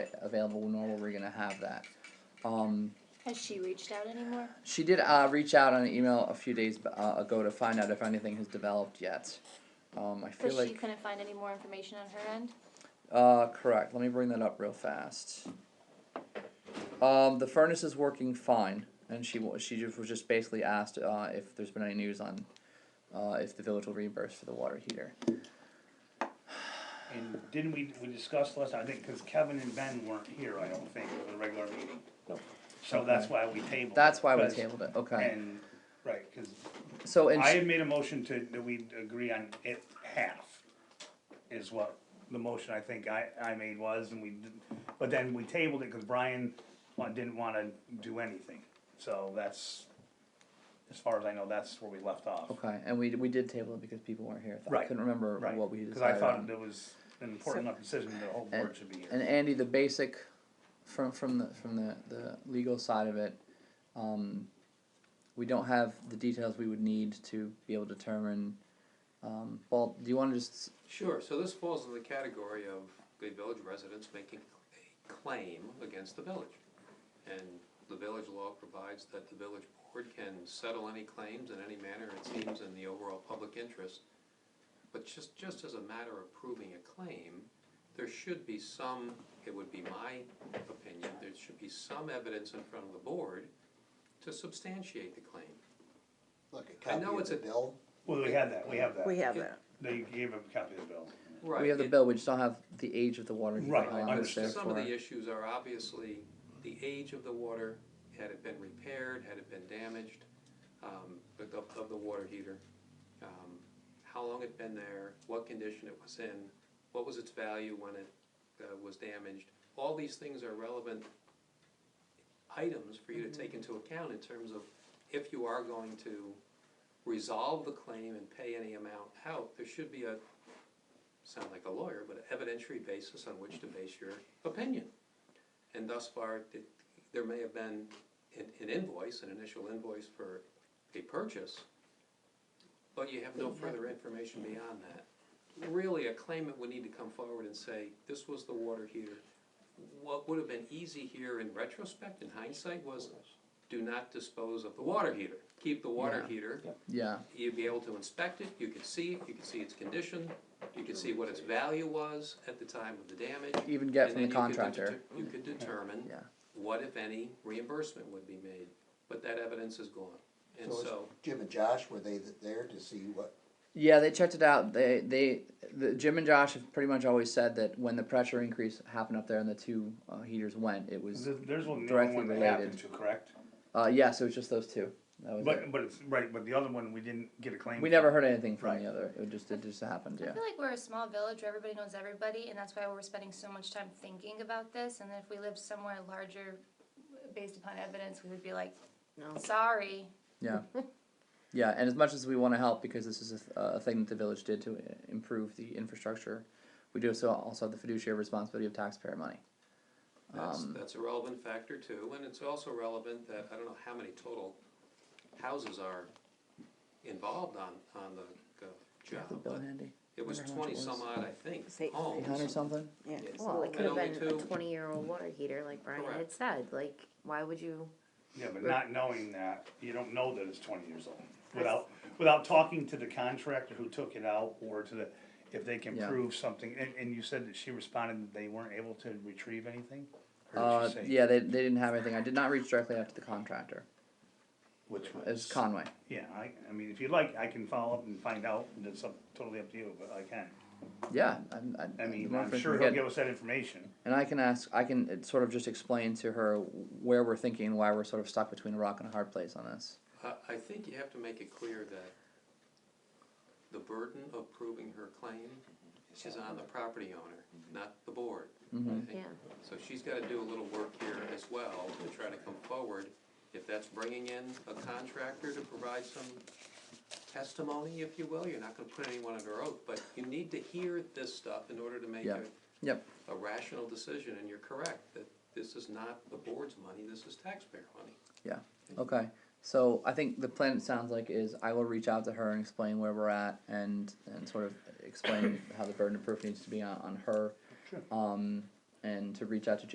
available nor were we gonna have that. Um, Has she reached out anymore? she did uh, reach out on an email a few days uh, ago to find out if anything has developed yet. Um, I But feel she like, couldn't find any more information on her end? uh, correct, let me bring that up real fast. Um, the furnace is working fine, and she wa- she just was just basically asked, uh, if there's been any news on, uh, if the village will reimburse for the water heater. And didn't we, we discussed last, I think, cause Kevin and Ben weren't here, I don't think, for the regular meeting. So that's why we tabled. it, That's why we 'cause- tabled it, okay, And, right, cause so, and I she, had made a motion to, that we agree on it half, is what the motion I think I, I made was, and we, did- but then we tabled it, cause Brian wa- didn't wanna do anything, so that's, as far as I know, that's where we left off. okay, and we, we did table it because people weren't here, I Right, couldn't remember Right, what we cause I decided on. thought it was an important enough decision that the whole board should be here. And Andy, the basic, from, from the, from the, the legal side of it, um, we don't have the details we would need to be able to determine, um, well, do you wanna just, Sure, so this falls in the category of the village residents making a claim against the village. And the village law provides that the village board can settle any claims in any manner it seems in the overall public interest. But just, just as a matter of proving a claim, there should be some, it would be my opinion, there should be some evidence in front of the board to substantiate the claim. Look, a I copy know of it's the a- bill, Well, we had that, we have that. We have Yeah. that. They gave a copy of the bill. Right. we have the it- bill, we just don't have the age of the water heater Right, on it, understood. Some of therefore- the issues are obviously the age of the water, had it been repaired, had it been damaged, um, but of, of the water heater. um, How long it'd been there, what condition it was in, what was its value when it, uh, was damaged. All these things are relevant items for you to take into account in terms of if you are going to resolve the claim and pay any amount out, there should be a, sound like a lawyer, but an evidentiary basis on which to base your opinion. And thus far, it- there may have been an an invoice, an initial invoice for a purchase, but you have no further information beyond that. Really, a claimant would need to come forward and say, this was the water heater. What would have been easy here in retrospect, in hindsight, was do not dispose of the water heater. Keep the water Yeah. heater Yeah, you'd be able to inspect it, you could see it, you could see its condition, you could see what its value was at the time of the damage. even get and from the then you could contractor, deter- You could determine Yeah. what, if any, reimbursement would be made, but that evidence is gone. And So it's- so, Jim and Josh, were they th- there to see what, yeah, they checked it out, they, they, the, Jim and Josh have pretty much always said that when the pressure increase happened up there and the two, uh, heaters went, it was, Th- There's only Directly one that related. happened to, correct? uh, yes, it was just those two, that was it. But, but it's, right, but the other one, we didn't get a claim. We for. never heard anything from Right. the other. It just it just happened. I Yeah. feel like we're a small village where everybody knows everybody, and that's why we're spending so much time thinking about this. And if we lived somewhere larger, based upon evidence, we would be like, No. sorry. Yeah. Yeah, and as much as we want to help because this is a, th- a thing that the village did to i- improve the infrastructure, we do so also have the fiduciary responsibility of taxpayer money. that's, um, that's a relevant factor too, and it's also relevant that, I don't know how many total houses are involved on, on the, uh, Do you have the job, bill but handy? it was Wonder how much it twenty some was. odd, I think, It's eight- homes. Eight hundred something. Yeah, Yes. well, it And could have only been a two. twenty-year-old water heater, like Brian had Correct. said, like, why would you? Yeah, but not knowing that, you don't know that it's twenty years old, without, without talking to the contractor who took it out, or to the, if they can Yeah. prove something, and, and you said that she responded that they weren't able to retrieve anything? Or Uh, did she say- yeah, they, they didn't have anything. I did not reach directly out to the contractor. Which It was was, Conway. yeah, I, I mean, if you'd like, I can follow up and find out, and it's up, totally up to you, but I can. Yeah, I'm, I, I the mean, more I'm information sure we he'll get- give us that information, And I can ask, I can uh, sort of just explain to her where we're thinking and why we're sort of stuck between a rock and a hard place on this. I, I think you have to make it clear that the burden of proving her claim is on the property owner, not the board. I think. Yeah. So she's gotta do a little work here as well to try to come forward. If that's bringing in a contractor to provide some testimony, if you will, you're not gonna put anyone under oath, but you need to hear this stuff in order to make Yeah. a, Yep. a rational decision, and you're correct, that this is not the board's money, this is taxpayer money. Yeah. Okay. So I think the plan it sounds like is I will reach out to her and explain where we're at and and sort of explain how the burden of proof needs to be on, on her. Um, and to reach out to